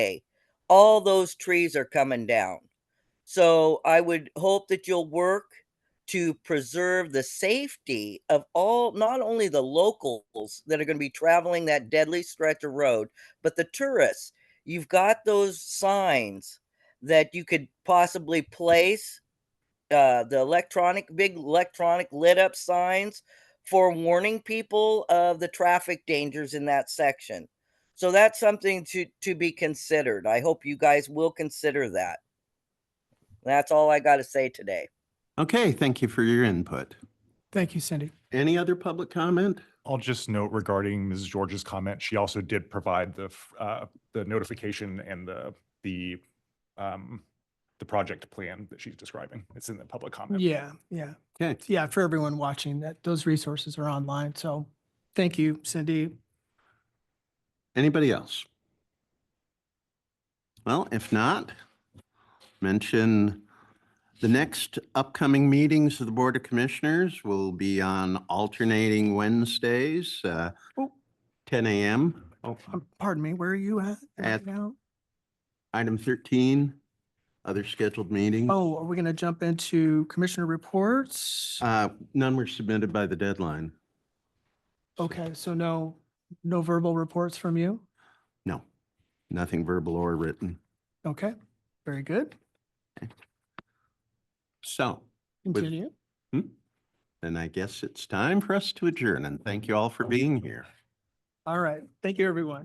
day, all those trees are coming down. So I would hope that you'll work to preserve the safety of all, not only the locals that are going to be traveling that deadly stretch of road, but the tourists. You've got those signs that you could possibly place uh, the electronic, big electronic lit up signs for warning people of the traffic dangers in that section. So that's something to, to be considered. I hope you guys will consider that. That's all I got to say today. Okay, thank you for your input. Thank you, Cindy. Any other public comment? I'll just note regarding Mrs. George's comment, she also did provide the, f- uh, the notification and the, the, um, the project plan that she's describing. It's in the public comment. Yeah, yeah. Okay. Yeah, for everyone watching, that those resources are online. So thank you, Cindy. Anybody else? Well, if not, mention the next upcoming meetings of the Board of Commissioners will be on alternating Wednesdays, uh, Oh. 10 a.m. Oh, Um, Pardon me, where are you at? right At- now? Item 13, other scheduled meetings. Oh, are we going to jump into commissioner reports? Uh, None were submitted by the deadline. Okay, so no, no verbal reports from you? No, nothing verbal or written. Okay, very good. So Continue. then I guess it's time for us to adjourn and thank you all for being here. All right. Thank you, everyone.